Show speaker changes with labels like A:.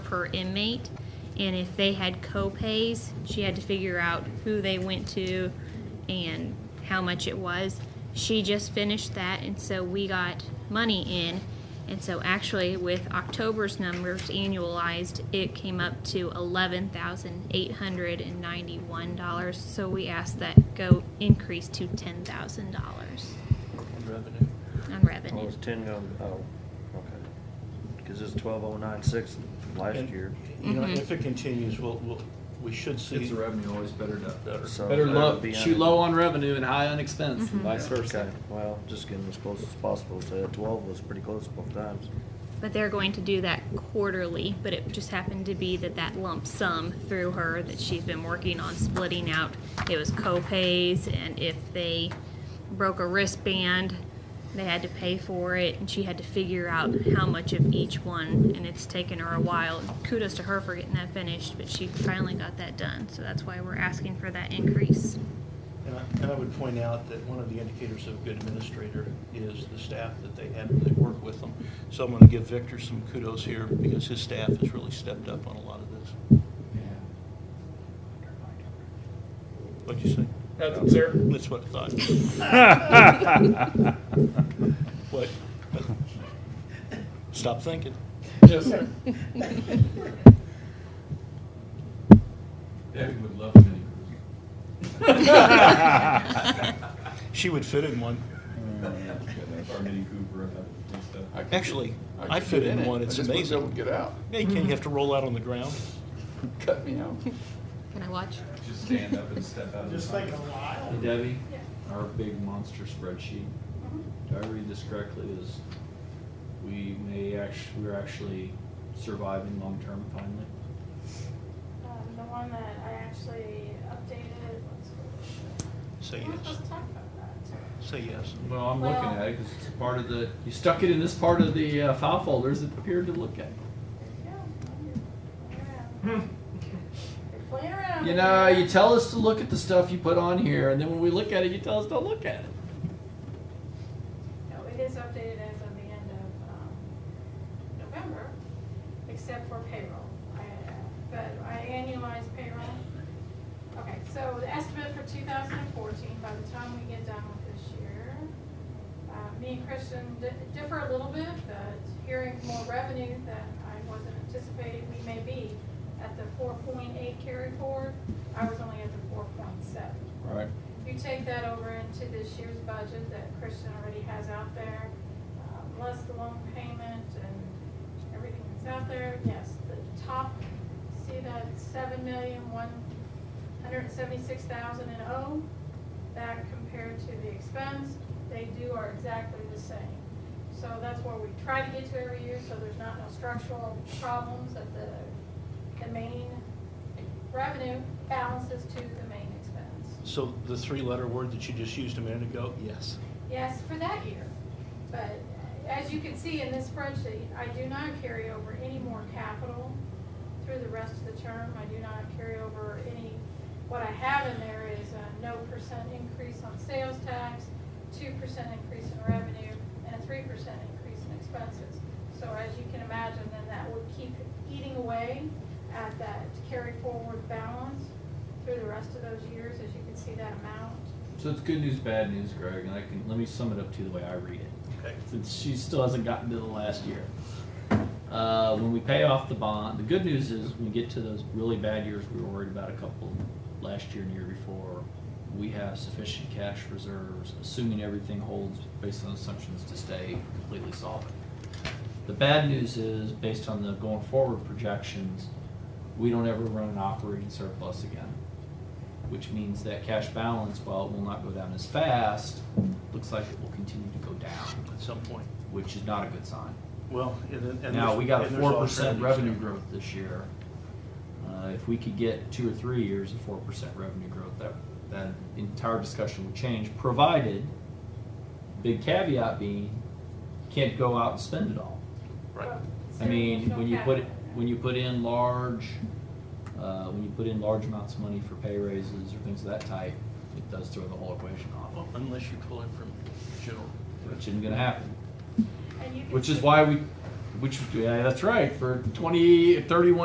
A: per inmate. And if they had co-pays, she had to figure out who they went to and how much it was. She just finished that, and so we got money in. And so actually, with October's numbers annualized, it came up to eleven thousand eight hundred and ninety-one dollars. So we asked that go increase to ten thousand dollars
B: Revenue.
A: on
C: Oh,
A: revenue.
C: it's ten gonna, oh, okay. Cause it's twelve oh nine six last
B: And,
C: year,
B: You know, if it continues, we'll, we'll, we should
D: It's
B: see
D: the revenue, always better to.
B: better.
C: so.
E: Better
C: that
E: low,
C: would be
E: shoot
C: under-
E: low on revenue and high on expense, and vice
C: Okay,
E: versa.
C: well, just getting as close as possible, so that twelve was pretty close both times.
A: But they're going to do that quarterly, but it just happened to be that that lump sum through her that she's been working on splitting out, it was co-pays and if they broke a wristband, they had to pay for it and she had to figure out how much of each one and it's taken her a while. Kudos to her for getting that finished, but she finally got that done. So that's why we're asking for that increase.
B: And I, and I would point out that one of the indicators of a good administrator is the staff that they have, when they work with them. So I'm gonna give Victor some kudos here because his staff has really stepped up on a lot of this. What'd you say?
F: That's there.
B: That's what I thought. What? Stop thinking.
F: Yes, sir.
D: Debbie would love mini
B: She would fit in one.
D: Cooper. Our Mini Cooper and that and stuff.
F: I could
B: Actually,
F: get-
B: I
F: could
B: fit
F: get
B: in
F: it.
B: one. It's
F: I just wish I
B: amazing.
F: would get out.
B: Yeah, you can't, you have to roll out on the ground.
F: Cut me out.
A: Can I watch?
D: Just stand up and step out. of the pocket.
B: while.
D: Hey, Debbie, our big monster spreadsheet,
G: uh-huh.
D: do I read this correctly, is we may actually, we're actually surviving long-term finally?
G: Um, the one that I actually updated, let's go.
B: Say
G: Let's
B: yes.
G: just talk about that too.
B: Say yes.
D: Well, I'm looking
G: Well-
D: at it, 'cause it's part of the,
E: You stuck it in this part of the uh, file folders that appeared to look at.
G: Yeah, you're playing around. You're playing around.
E: Hmm. You
G: with
E: know,
G: it.
E: you tell us to look at the stuff you put on here, and then when we look at it, you tell us don't look at it.
G: No, it is updated as of the end of, um, November, except for payroll. I, uh, But I annualized payroll. Okay, so the estimate for two thousand and fourteen, by the time we get done with this year, uh, me and Christian di- differ a little bit, but hearing more revenue that I wasn't anticipating, we may be at the four point eight carry forward. I was only at the four point seven.
E: Right.
G: If you take that over into this year's budget that Christian already has out there, um, less the loan payment and everything that's out there, yes, the top, see that seven million, one hundred and seventy-six thousand and oh? That compared to the expense, they do are exactly the same. So that's where we try to get to every year, so there's not no structural problems at the, the main revenue balances to the main expense.
B: So the three-letter word that you just used a minute ago, yes.
G: Yes, for that year. But as you can see in this spreadsheet, I do not carry over any more capital through the rest of the term. I do not carry over any, what I have in there is a no percent increase on sales tax, two percent increase in revenue, and a three percent increase in expenses. So as you can imagine, then that would keep eating away at that carry forward balance through the rest of those years, as you can see that amount.
D: so it's good news, bad news, Greg, and I can, let me sum it up to you the way I read it.
B: Okay.
E: since she still hasn't gotten to the last year. Uh, when we pay off the bond, the good news is when we get to those really bad years we were worried about a couple last year and the year before, we have sufficient cash reserves, assuming everything holds based on assumptions to stay completely solvent. The bad news is, based on the going forward projections, we don't ever run an operating surplus again which means that cash balance, while it will not go down as fast, looks like it will continue to go down,
B: At some point.
E: which is not a good sign.
B: Well, and then. and
E: Now,
B: there's-
E: we got a
B: and there's
E: four percent
B: alternatives
E: revenue
B: there.
E: growth this year. Uh, If we could get two or three years of four percent revenue growth, that, that entire discussion would change, provided, big caveat being, can't go out and spend it all.
B: Right.
E: I mean, when you put, it when you put in large, uh, when you put in large amounts of money for pay raises or things of that type, it does throw the whole equation off,
B: Well, Unless you pull it from general.
E: which isn't gonna happen.
G: And you can
E: Which is
G: see-
E: why we, which, yeah, that's right, for twenty, thirty-one